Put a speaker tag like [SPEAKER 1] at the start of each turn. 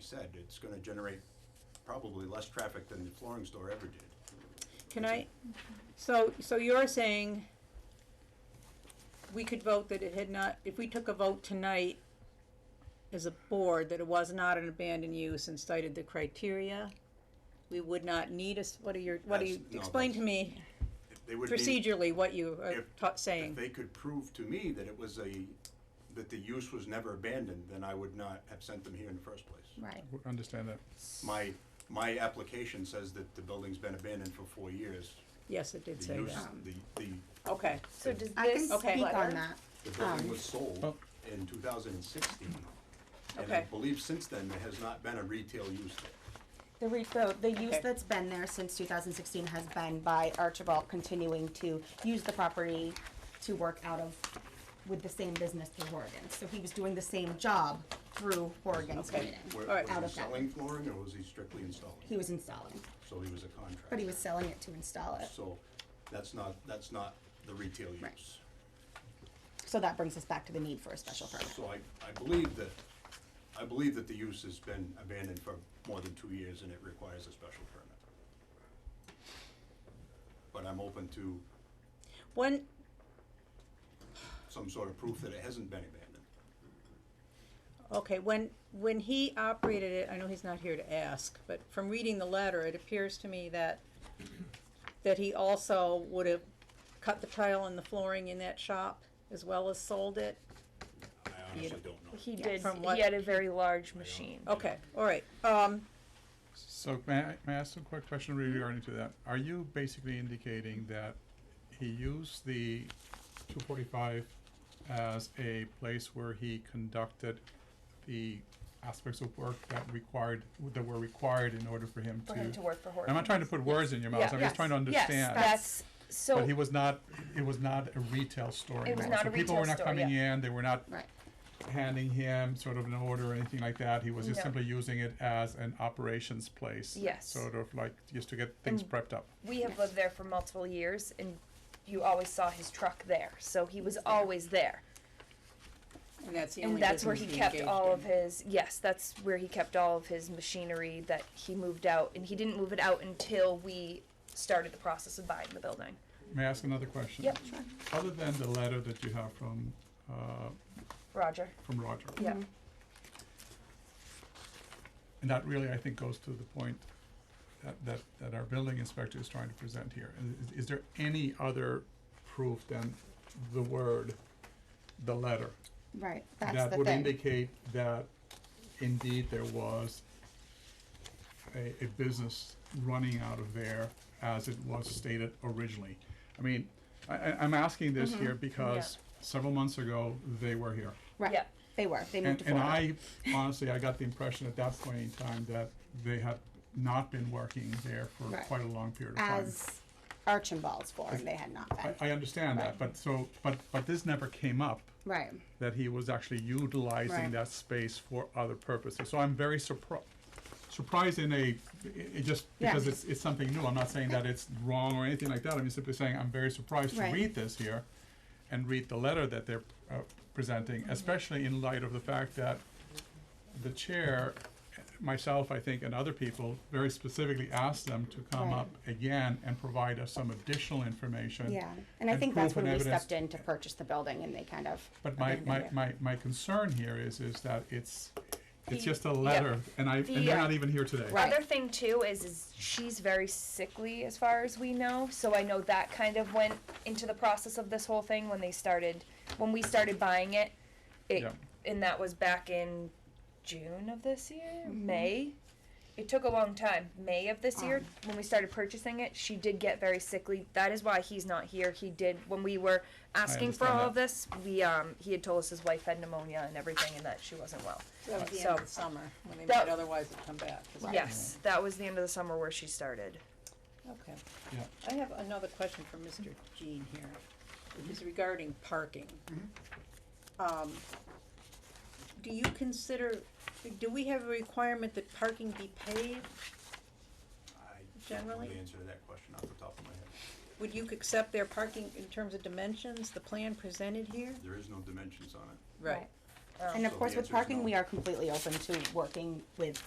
[SPEAKER 1] said, it's gonna generate probably less traffic than the flooring store ever did.
[SPEAKER 2] Can
[SPEAKER 1] Is
[SPEAKER 2] I,
[SPEAKER 1] it-
[SPEAKER 2] so, so you're saying we could vote that it had not, if we took a vote tonight as a board, that it was not an abandoned use and cited the criteria, we would not need us, what are your, what are you,
[SPEAKER 1] That's- no,
[SPEAKER 2] explain to
[SPEAKER 1] that's-
[SPEAKER 2] me
[SPEAKER 1] They would be,
[SPEAKER 2] procedurally what you are
[SPEAKER 1] If-
[SPEAKER 2] ta-
[SPEAKER 1] if
[SPEAKER 2] saying.
[SPEAKER 1] they could prove to me that it was a, that the use was never abandoned, then I would not have sent them here in the first place.
[SPEAKER 3] Right.
[SPEAKER 4] W- Understand that.
[SPEAKER 1] My, my application says that the building's been abandoned for four years.
[SPEAKER 2] Yes, it did
[SPEAKER 1] The
[SPEAKER 2] say
[SPEAKER 1] use,
[SPEAKER 2] that.
[SPEAKER 1] the, the,
[SPEAKER 2] Okay,
[SPEAKER 5] So does
[SPEAKER 3] I can
[SPEAKER 5] this
[SPEAKER 2] Okay.
[SPEAKER 3] speak on
[SPEAKER 5] letter-
[SPEAKER 3] that.
[SPEAKER 1] the building
[SPEAKER 3] Um,
[SPEAKER 1] was sold
[SPEAKER 4] Oh.
[SPEAKER 1] in two thousand and sixteen. And I
[SPEAKER 2] Okay.
[SPEAKER 1] believe since then, there has not been a retail use there.
[SPEAKER 3] The re, the, the use
[SPEAKER 2] Okay.
[SPEAKER 3] that's been there since two thousand sixteen has been by Archibald continuing to use the property to work out of, with the same business through Horrigan. So he was doing the same job through Horrigan's
[SPEAKER 2] Okay.
[SPEAKER 3] meeting.
[SPEAKER 1] Where-
[SPEAKER 2] All right.
[SPEAKER 3] Out
[SPEAKER 1] Was
[SPEAKER 3] of
[SPEAKER 1] he
[SPEAKER 3] that.
[SPEAKER 1] selling flooring or was he strictly installing?
[SPEAKER 3] He was installing,
[SPEAKER 1] So he was a contractor.
[SPEAKER 3] but he was selling it to install it.
[SPEAKER 1] So that's not, that's not the retail
[SPEAKER 3] Right.
[SPEAKER 1] use.
[SPEAKER 3] So that brings us back to the need for a special permit.
[SPEAKER 1] So I, I believe that, I believe that the use has been abandoned for more than two years and it requires a special permit. But I'm open to
[SPEAKER 2] when,
[SPEAKER 1] some sort of proof that it hasn't been abandoned.
[SPEAKER 2] Okay, when, when he operated it, I know he's not here to ask, but from reading the letter, it appears to me that, that he also would have cut the tile and the flooring in that shop as well as sold it?
[SPEAKER 1] I honestly don't know.
[SPEAKER 5] He did.
[SPEAKER 2] From what- Oh,
[SPEAKER 5] He had a very large machine.
[SPEAKER 2] Okay, all right, um,
[SPEAKER 4] So may I, may I ask a quick question
[SPEAKER 5] Mm-hmm.
[SPEAKER 4] regarding to that? Are you basically indicating that he used the two forty-five as a place where he conducted the aspects of work that required, that were required in order for him to?
[SPEAKER 5] For him to work for Horton.
[SPEAKER 4] I'm not trying to put words in your mouth,
[SPEAKER 5] Yeah.
[SPEAKER 4] I'm just trying to understand.
[SPEAKER 5] Yes, that's,
[SPEAKER 4] But he
[SPEAKER 5] so,
[SPEAKER 4] was not, it was not a retail store.
[SPEAKER 5] It was
[SPEAKER 4] anymore.
[SPEAKER 5] not
[SPEAKER 4] So
[SPEAKER 5] a
[SPEAKER 4] People were
[SPEAKER 5] retail
[SPEAKER 4] not
[SPEAKER 5] store,
[SPEAKER 4] coming in, they were not
[SPEAKER 3] Right.
[SPEAKER 4] handing him sort of an order or anything like that. He was just
[SPEAKER 5] No.
[SPEAKER 4] simply using it as an operations place.
[SPEAKER 5] Yes. Mm.
[SPEAKER 4] Sort of like just to get things
[SPEAKER 5] And-
[SPEAKER 4] prepped up.
[SPEAKER 5] we have lived there for multiple years and you always saw his truck there, so he was always there.
[SPEAKER 2] and that's the
[SPEAKER 5] And
[SPEAKER 2] only
[SPEAKER 5] that's where
[SPEAKER 2] business
[SPEAKER 5] he
[SPEAKER 2] he
[SPEAKER 5] kept
[SPEAKER 2] engaged
[SPEAKER 5] all of
[SPEAKER 2] in.
[SPEAKER 5] his, yes, that's where he kept all of his machinery that he moved out, and he didn't move it out until we started the process of buying the building.
[SPEAKER 4] May I ask another question?
[SPEAKER 5] Yep.
[SPEAKER 4] Other than the letter that you have from, uh,
[SPEAKER 5] Roger,
[SPEAKER 4] from Roger,
[SPEAKER 5] yeah,
[SPEAKER 4] and that really, I think, goes to the point that, that, that our building inspector is trying to present here. Is- Is there any other proof than the word, the letter?
[SPEAKER 3] Right, that's
[SPEAKER 4] that
[SPEAKER 3] the
[SPEAKER 4] would
[SPEAKER 3] thing.
[SPEAKER 4] indicate that indeed there was a, a business running out of there as it was stated originally. I mean, I, I, I'm asking this
[SPEAKER 3] Mm-hmm.
[SPEAKER 4] here because several months ago, they were here.
[SPEAKER 3] Right,
[SPEAKER 5] yeah.
[SPEAKER 3] they were, they moved
[SPEAKER 4] And,
[SPEAKER 3] to Florida.
[SPEAKER 4] and I, honestly, I got the impression at that point in time that they had not been working there for
[SPEAKER 3] Right.
[SPEAKER 4] quite a long period of time.
[SPEAKER 3] As Archibald's forum, they had not been.
[SPEAKER 4] I, I understand that, but so, but, but this never came up.
[SPEAKER 3] Right,
[SPEAKER 4] that he was actually utilizing
[SPEAKER 3] Right.
[SPEAKER 4] that space for other purposes. So I'm very surprised. Surprised in a, it, it just
[SPEAKER 3] Yeah.
[SPEAKER 4] because it's it's something new. I'm not saying that it's wrong or anything like that. I'm simply saying I'm very surprised
[SPEAKER 3] Right.
[SPEAKER 4] to read this here, and read the letter that they're uh, presenting, especially in light of the fact that the chair, myself, I think, and other people very specifically asked them to come
[SPEAKER 3] Right.
[SPEAKER 4] up again and provide us some additional information.
[SPEAKER 3] yeah, and I think that's
[SPEAKER 4] proof and
[SPEAKER 3] when we
[SPEAKER 4] evidence
[SPEAKER 3] stepped in to purchase the building and they kind of
[SPEAKER 4] but my,
[SPEAKER 3] abandoned
[SPEAKER 4] my,
[SPEAKER 3] it.
[SPEAKER 4] my, my concern here is, is that it's, it's
[SPEAKER 5] The-
[SPEAKER 4] just a
[SPEAKER 5] yeah.
[SPEAKER 4] letter, and I,
[SPEAKER 5] The,
[SPEAKER 4] and they're
[SPEAKER 5] uh,
[SPEAKER 4] not even here today.
[SPEAKER 3] Right.
[SPEAKER 5] Other thing too is is she's very sickly as far as we know, so I know that kind of went into the process of this whole thing when they started when we started buying it. It
[SPEAKER 4] Yeah.
[SPEAKER 5] and that was back in June of this year,
[SPEAKER 2] Mm-hmm.
[SPEAKER 5] May. It took a long time. May of this year
[SPEAKER 2] Um.
[SPEAKER 5] when we started purchasing it, she did get very sickly. That is why he's not here. He did when we were asking for
[SPEAKER 4] understand
[SPEAKER 5] all
[SPEAKER 4] that.
[SPEAKER 5] of this, we um he had told us his wife had pneumonia and everything and that she wasn't well.
[SPEAKER 2] That was the
[SPEAKER 5] So-
[SPEAKER 2] end of the summer, when they
[SPEAKER 5] That-
[SPEAKER 2] might otherwise have come back. is what-
[SPEAKER 5] Yes, that was the end of the summer where she started.
[SPEAKER 2] Okay.
[SPEAKER 4] Yeah.
[SPEAKER 2] I have another question for Mr. Jean here, which is regarding parking. Um, Do you consider, do we have a requirement that parking be paid?
[SPEAKER 1] I don't know
[SPEAKER 2] Generally?
[SPEAKER 1] the answer to that question off the top of my head.
[SPEAKER 2] Would you accept their parking in terms of dimensions, the plan presented here?
[SPEAKER 1] There is no dimensions on it.
[SPEAKER 3] Right. And of
[SPEAKER 1] So
[SPEAKER 3] course,
[SPEAKER 1] the answer
[SPEAKER 3] with
[SPEAKER 1] is
[SPEAKER 3] parking,
[SPEAKER 1] no.
[SPEAKER 3] we are completely open to working with